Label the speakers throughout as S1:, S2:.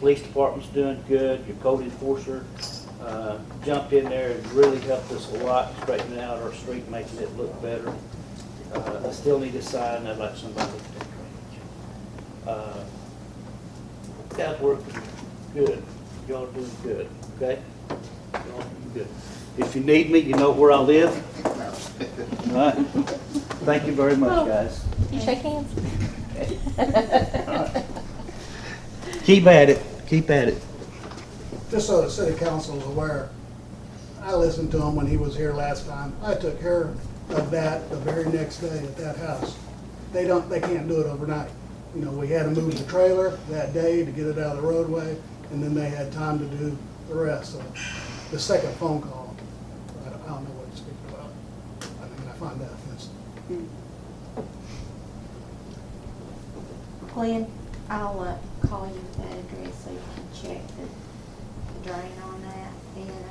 S1: Police department's doing good, your code enforcer, uh, jumped in there and really helped us a lot, straightening out our street, making it look better. Uh, I still need a sign, I'd like somebody to take it. Uh, Guys working good, y'all doing good, okay? Y'all doing good. If you need me, you know where I live. All right. Thank you very much, guys.
S2: You shake hands?
S1: Keep at it, keep at it.
S3: Just so the city council is aware, I listened to him when he was here last time. I took care of that the very next day at that house. They don't, they can't do it overnight. You know, we had to move the trailer that day to get it out of the roadway, and then they had time to do the rest. So the second phone call, I don't, I don't know what to speak about. I mean, I find that offensive.
S4: Glenn, I'll uh, call you with that address so you can check the drain on that. And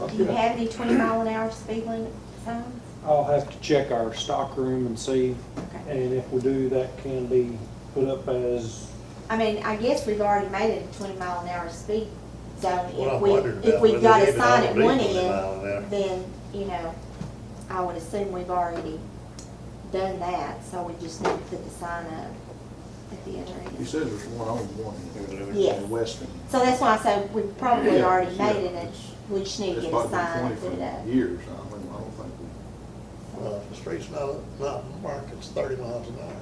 S4: uh, do you
S5: Okay.
S4: have any twenty mile an hour speed limit signs?
S5: I'll have to check our stock room and see,
S4: Okay.
S5: and if we do, that can be put up as,
S4: I mean, I guess we've already made it a twenty mile an hour speed zone.
S6: What I
S4: If we,
S6: wondered
S4: if
S6: about
S4: we've
S6: whether
S4: got a
S6: even
S4: sign
S6: all
S4: at
S6: these
S4: one
S6: was allowed there.
S4: end, then, you know, I would assume we've already done that, so we just need to put the sign up at the other
S7: He
S4: end.
S7: says there's one on one
S4: Yes.
S7: in Weston.
S4: So that's why I said we probably
S7: Yeah,
S4: already
S7: yeah.
S4: made it, and we just need to
S7: It's
S4: get a
S7: probably
S4: sign
S7: been
S4: and put it up.
S7: twenty for years, I mean, I don't think, we-
S6: Well, if the street's not, not marked, it's thirty miles an hour.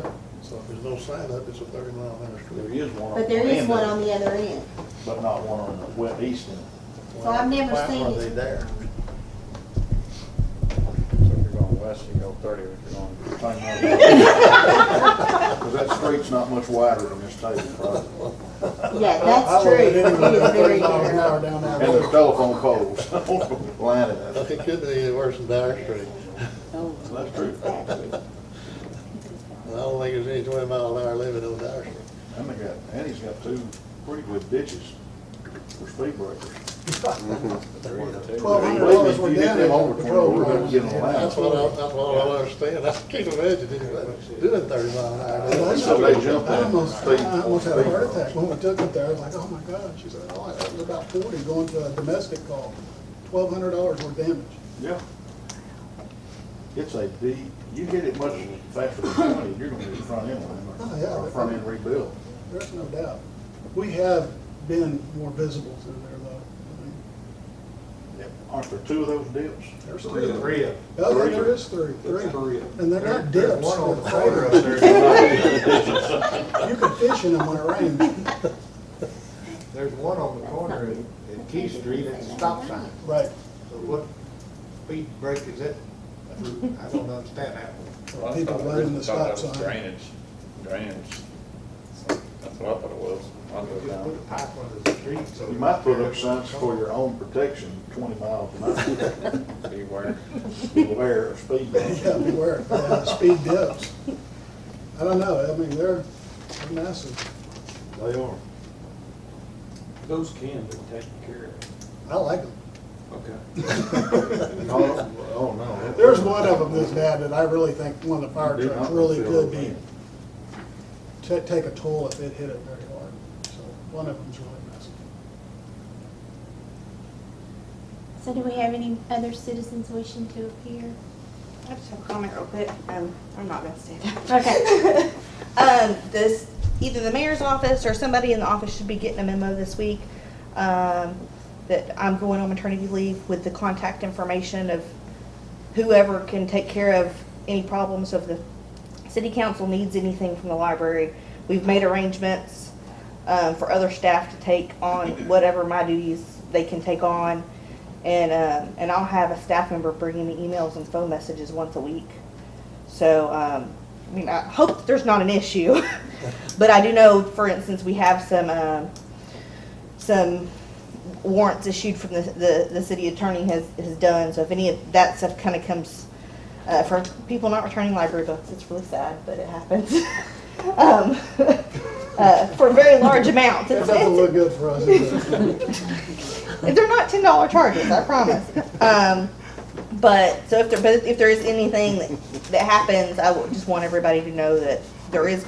S3: Correct?
S6: So if there's no sign up, it's a thirty mile an hour
S7: there
S6: street.
S7: is one on.
S4: But there is
S7: end
S4: one
S7: of
S4: on
S7: it,
S4: the other end.
S7: But not one on the west east end.
S4: So I've never
S6: Why
S4: seen
S6: are
S4: it.
S6: they there?
S8: So if you're going west, you go thirty, if you're going.
S7: Cause that street's not much wider than this table, probably.
S4: Yeah, that's
S3: I
S4: true.
S3: would
S4: It is very
S3: thirty miles an hour
S4: narrow.
S3: down
S7: And
S3: that
S7: the
S3: road.
S7: telephone poles lining
S6: Look,
S7: up.
S6: It could be any worse than our street.
S7: That's true.
S6: And I don't think there's any twenty mile an hour limit on our street.
S7: And they got, and he's got two pretty good ditches for speed breakers.
S3: Twelve hundred
S7: Believe me,
S3: dollars
S7: if
S3: went
S7: you get
S3: down
S7: them
S3: in
S7: over
S3: patrol
S7: 20, we're gonna
S3: cars.
S7: get them allowed.
S6: That's what I, that's what I don't understand. I can't imagine anybody doing thirty mile an hour.
S7: So they
S3: I
S7: jump that
S3: almost,
S7: speed-
S3: I almost had a
S7: speed
S3: heart
S7: bump.
S3: attack when we took it there, I was like, oh my God, she said, oh, I was about forty going to a domestic call, twelve hundred dollars worth damage.
S7: Yeah. It's a D, you hit it much faster than twenty, you're gonna get a front end
S3: Oh,
S7: line,
S3: yeah.
S7: or a front end rebuild.
S3: There's no doubt. We have been more visible through there though. I mean,
S7: Aren't there two of those dips?
S3: There's three of them.
S5: three of
S3: Oh, yeah, there is three, three.
S5: three of
S3: And they're not dips.
S8: There's one on the
S3: they're
S8: corner up
S3: craters.
S8: there.
S3: You can fish in them when it rains.
S8: There's one on the corner at, at Key Street at the stop sign.
S3: Right.
S8: So what speed break is it? I don't understand that one.
S9: Well, I
S3: People
S9: thought it
S3: running the
S9: was- thought
S3: stop
S9: that was
S3: sign.
S9: Drainage, drainage. That's what I thought it was. I'll go
S8: Just
S9: down.
S8: put a pipe under the street so.
S7: You might put up signs for your own protection, twenty miles an hour,
S9: Beware.
S7: beware of speed bumps.
S3: Yeah, beware, yeah, speed dips. I don't know, I mean, they're they're massive.
S7: They are.
S5: Those can be taken care
S3: I like them.
S5: of. Okay.
S7: Oh, oh, no.
S3: There's one of them that's bad that I really think one of the fire
S7: Did
S3: trucks
S7: not
S3: really
S7: feel
S3: could
S7: the
S3: be,
S7: wind.
S3: ta- take a toll if it hit it very hard. So one of them's really massive.
S4: So do we have any other citizens wishing to appear?
S10: I just have a comment real quick. Um, I'm not gonna stand up.
S4: Okay.
S10: Um, this, either the mayor's office or somebody in the office should be getting a memo this week, um, that I'm going on maternity leave with the contact information of whoever can take care of any problems of the city council needs anything from the library. We've made arrangements, um, for other staff to take on whatever my duties they can take on. And, um, and I'll have a staff member bringing me emails and phone messages once a week. So, um, I mean, I hope that there's not an issue, but I do know, for instance, we have some, um, some warrants issued from the, the, the city attorney has, has done, so if any of that stuff kinda comes, uh, for people not returning library books, it's really sad, but it happens. Um, uh, for very large amounts.
S3: That
S10: It's-
S3: doesn't
S10: it's-
S3: look good for us. either.
S10: they're not ten dollar charges, I promise. Um, but so if there, but if there is anything that, that happens, I would just want everybody to know that there is